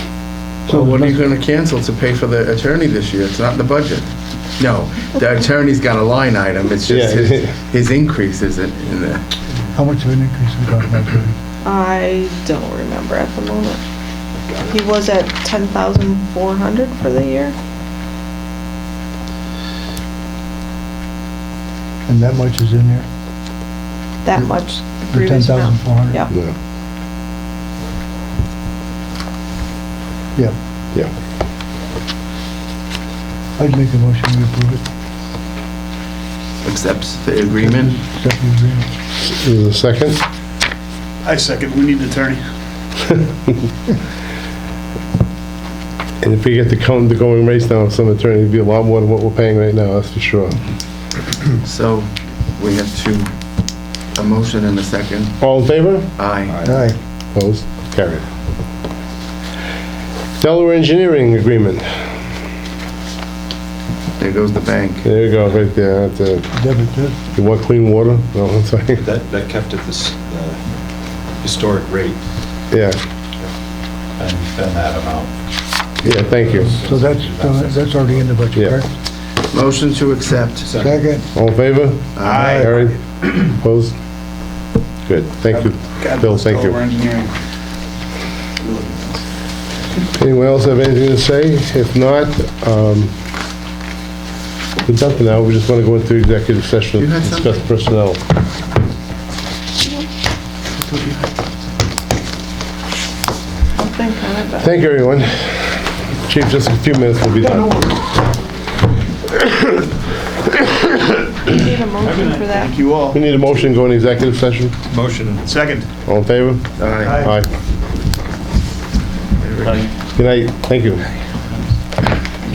So what are you let's- gonna cancel to pay for the attorney this year? It's not in the budget. No, the attorney's got a line item, it's just Yeah. his, his increase isn't in the. How much of an increase we talking about, Judy? I don't remember at the moment. He was at ten thousand four hundred for the year. And that much is in there? That much, the The previous amount. 10,400? Yeah. No, Yeah, yeah. I'd make a motion to approve it, Accepts the agreement? accept the agreement. Is there a second? I second, we need an attorney. And if we get the count the going rates now, some attorney would be a lot more than what we're paying right now, that's for sure. So we have two, a motion and a second. All in favor? Aye. Aye, Opposed? Carried. Delaware Engineering Agreement. There goes the bank. There you go, right there. That's a- debit, debit. You want clean water? No, I'm sorry. That, that kept at this uh, historic rate, Yeah, and then that amount. yeah, thank you. So that's, uh, that's already in the budget, Yeah. correct? Motion to accept. Second, All in favor? Aye. Carried. Opposed? Good, thank you. God Bill, bless thank you. Delaware Engineering. Anyone else have anything to say? If not, um, we're done for now, we just want to go into executive session You and had discuss something? personnel. I'll think on it, but Thank you, everyone. Chief, just a few minutes, we'll be done. I need a motion for that. Thank you all. We need a motion, to go into executive session. Motion Second. All in favor? Aye. Aye. Good night, thank you.